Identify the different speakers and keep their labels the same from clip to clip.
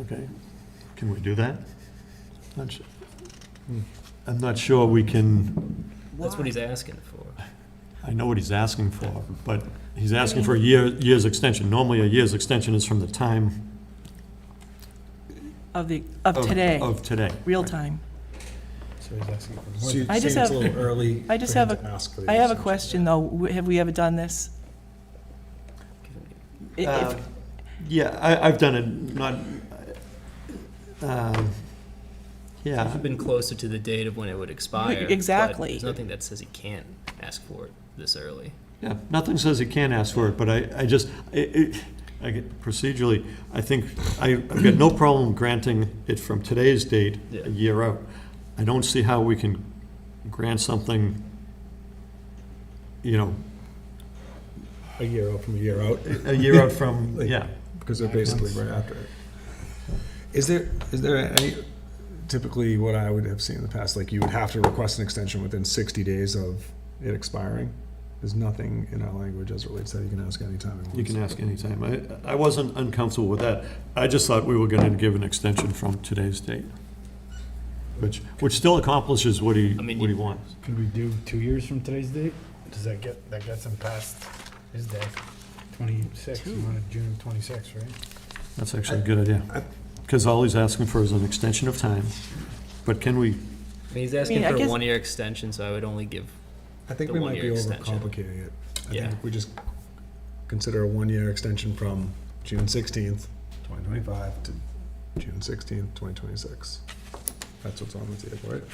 Speaker 1: Okay, can we do that? Not su- I'm not sure we can,
Speaker 2: That's what he's asking for.
Speaker 1: I know what he's asking for, but he's asking for a year, year's extension. Normally, a year's extension is from the time.
Speaker 3: Of the,
Speaker 1: Oh.
Speaker 3: of today,
Speaker 1: Of today.
Speaker 3: real time.
Speaker 4: So he's asking for
Speaker 5: So
Speaker 4: more.
Speaker 5: you're
Speaker 4: than-
Speaker 3: I just
Speaker 5: saying it's a
Speaker 3: have-
Speaker 5: little early
Speaker 3: I just
Speaker 5: for him
Speaker 3: have
Speaker 5: to ask for the
Speaker 3: I have a
Speaker 5: extension.
Speaker 3: question, though. W- Have we ever done this? I-
Speaker 1: Uh,
Speaker 3: If,
Speaker 1: Yeah, I, I've done it, not, um, yeah,
Speaker 2: You've been closer to the date of when it would expire. but
Speaker 3: exactly.
Speaker 2: There's nothing that says he can't ask for it this early.
Speaker 1: yeah, nothing says he can't ask for it, but I, I just, it, it, I get, procedurally, I think, I, I've got no problem granting it from today's date,
Speaker 2: Yeah.
Speaker 1: a year out. I don't see how we can grant something, you know,
Speaker 5: A year out from a year out,
Speaker 1: a year out from,
Speaker 5: Like-
Speaker 1: yeah.
Speaker 5: because they're basically right after it. Is there, is there any, typically what I would have seen in the past, like you would have to request an extension within sixty days of it expiring? There's nothing in our language as it relates to that you can ask anytime.
Speaker 1: You can ask anytime. I, I wasn't uncomfortable with that. I just thought we were gonna give an extension from today's date. Which, which still accomplishes what he,
Speaker 2: I
Speaker 1: what
Speaker 2: mean,
Speaker 1: he
Speaker 2: you-
Speaker 1: wants.
Speaker 4: Could we do two years from today's date? Does that get, that gets him past his day? Twenty-six, you wanted June twenty-six, right?
Speaker 1: That's actually a good idea. Cause all he's asking for is an extension of time. But can we,
Speaker 2: I mean, he's asking
Speaker 3: mean, I
Speaker 2: for a
Speaker 3: guess-
Speaker 2: one-year extension, so I would only give,
Speaker 5: I think
Speaker 2: the
Speaker 5: we might be
Speaker 2: one-year extension.
Speaker 5: overcomplicating it. I
Speaker 2: Yeah.
Speaker 5: think if we just consider a one-year extension from June sixteenth, twenty twenty-five to June sixteenth, twenty twenty-six. That's what's on the table, right?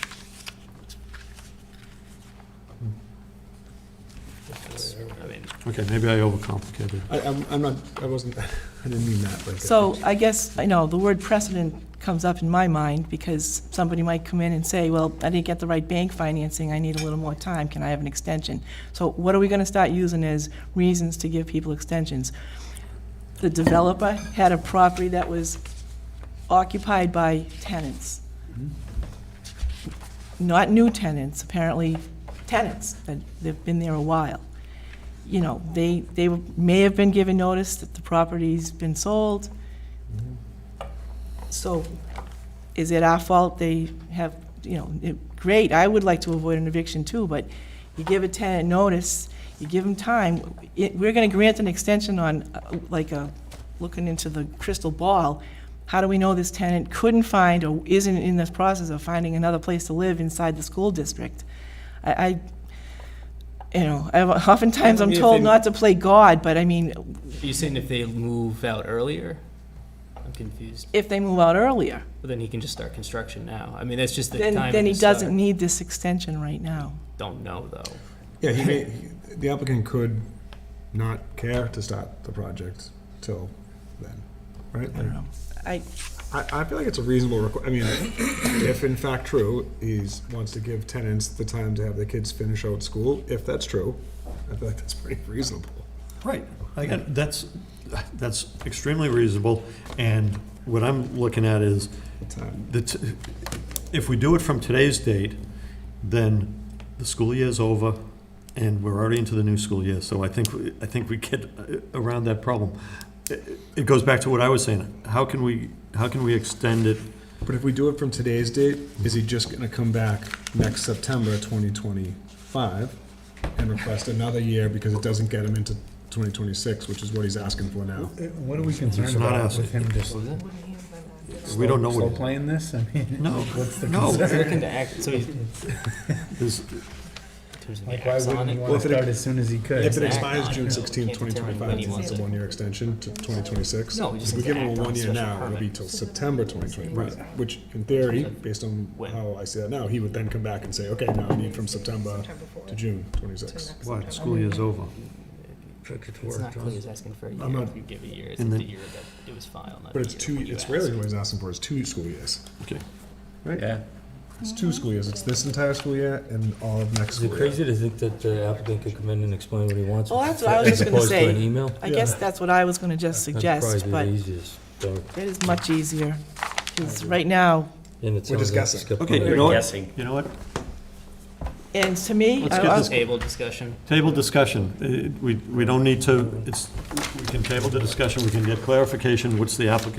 Speaker 2: that's- I mean,
Speaker 1: okay, maybe I overcomplicated. it.
Speaker 5: I, I'm, I'm not, I wasn't, I didn't mean that, like.
Speaker 3: so I guess, I know, the word precedent comes up in my mind because somebody might come in and say, well, I didn't get the right bank financing. I need a little more time. Can I have an extension? So what are we going to start using as reasons to give people extensions? The developer had a property that was occupied by tenants. Not new tenants, apparently tenants, that they've been there a while. You know, they, they may have been given notice that the property's been sold. So is it our fault they have, you know, it- great, I would like to avoid an eviction too, but you give a tenant notice, you give them time, it- we're going to grant an extension on, uh, like, a looking into the crystal ball, how do we know this tenant couldn't find or isn't in this process of finding another place to live inside the school district? I, I, you know, I- oftentimes I'm
Speaker 2: If
Speaker 3: told
Speaker 2: they-
Speaker 3: not to play God, but I mean,
Speaker 2: are you saying if they move out earlier? I'm confused.
Speaker 3: if they move out earlier,
Speaker 2: But then he can just start construction now. I mean, that's just the
Speaker 3: then,
Speaker 2: time.
Speaker 3: then
Speaker 2: to
Speaker 3: he doesn't
Speaker 2: start.
Speaker 3: need this extension right now.
Speaker 2: Don't know, though.
Speaker 5: Yeah, he may, he- the applicant could not care to start the project till then, right?
Speaker 3: I don't know. I,
Speaker 5: I, I feel like it's a reasonable requ- I mean, if in fact true, he's, wants to give tenants the time to have their kids finish out school, if that's true, I feel like that's pretty reasonable.
Speaker 1: Right. That's, that's extremely reasonable, and what I'm looking at is,
Speaker 5: Time.
Speaker 1: the t- if we do it from today's date, then the school year's over, and we're already into the new school year, so I think, we- I think we get uh, around that problem. It it goes back to what I was saying, how can we, how can we extend it?
Speaker 5: But if we do it from today's date, is he just gonna come back next September twenty twenty-five and request another year because it doesn't get him into twenty twenty-six, which is what he's asking for now?
Speaker 4: What are we concerned
Speaker 1: not
Speaker 4: about
Speaker 1: asking.
Speaker 4: with him just
Speaker 1: We don't know
Speaker 4: slow
Speaker 1: what,
Speaker 4: playing this? I mean,
Speaker 1: No,
Speaker 4: what's the
Speaker 1: no.
Speaker 4: concern?
Speaker 2: Looking to act, so he's, in
Speaker 1: is,
Speaker 2: terms of
Speaker 4: Like,
Speaker 2: the
Speaker 4: why
Speaker 2: acts on
Speaker 4: wouldn't he
Speaker 2: it.
Speaker 4: want to
Speaker 5: if it
Speaker 4: start
Speaker 5: ex-
Speaker 4: as soon as he could?
Speaker 5: If it
Speaker 2: Exactly.
Speaker 5: expires June
Speaker 2: No,
Speaker 5: sixteenth,
Speaker 2: can't
Speaker 5: twenty
Speaker 2: determine
Speaker 5: twenty-five,
Speaker 2: when he
Speaker 5: it's
Speaker 2: wants
Speaker 5: a
Speaker 2: to.
Speaker 5: one-year extension to twenty twenty-six.
Speaker 2: No, we
Speaker 5: If
Speaker 2: just
Speaker 5: we
Speaker 2: need to
Speaker 5: give him
Speaker 2: act
Speaker 5: a
Speaker 2: on
Speaker 5: one-year
Speaker 2: special
Speaker 5: now, it'll be
Speaker 2: permit.
Speaker 5: till September twenty twenty-five,
Speaker 1: Right.
Speaker 5: which in theory, based on
Speaker 2: When?
Speaker 5: how I see that now, he would then come back and say, okay, now I need from September to June twenty-six.
Speaker 1: what, school year's over.
Speaker 2: It's not clear he's asking for a
Speaker 5: I'm
Speaker 2: year.
Speaker 5: not-
Speaker 2: If you give a year, it's
Speaker 1: And
Speaker 2: the
Speaker 1: then-
Speaker 2: year that it was filed.
Speaker 5: But
Speaker 2: not the
Speaker 5: it's
Speaker 2: year
Speaker 5: two,
Speaker 2: when you
Speaker 5: it's
Speaker 2: asked.
Speaker 5: really what he's asking for, is two school years.
Speaker 1: Okay.
Speaker 4: Yeah.
Speaker 5: It's two school years, it's this entire school year and all of next
Speaker 6: Is it
Speaker 5: school year.
Speaker 6: crazy to think that the applicant could come in and explain what he wants?
Speaker 3: Well, oh, that's what I was just gonna
Speaker 6: As
Speaker 3: say.
Speaker 6: opposed to an email?
Speaker 3: I guess that's what I was gonna just suggest,
Speaker 6: That's
Speaker 3: but
Speaker 6: probably
Speaker 3: it
Speaker 6: the easiest, so,
Speaker 3: is much easier, because right now,
Speaker 6: and it
Speaker 5: We're
Speaker 6: sounds like
Speaker 5: discussing.
Speaker 6: skip
Speaker 1: Okay,
Speaker 6: on
Speaker 1: you
Speaker 6: it.
Speaker 1: know what,
Speaker 2: guessing.
Speaker 1: you know what,
Speaker 3: and to me,
Speaker 1: Let's
Speaker 3: I-
Speaker 1: get
Speaker 3: I-
Speaker 1: this-
Speaker 2: Table discussion.
Speaker 1: table discussion, Uh, we, we don't need to, it's, we can table the discussion, we can get clarification, what's the applicant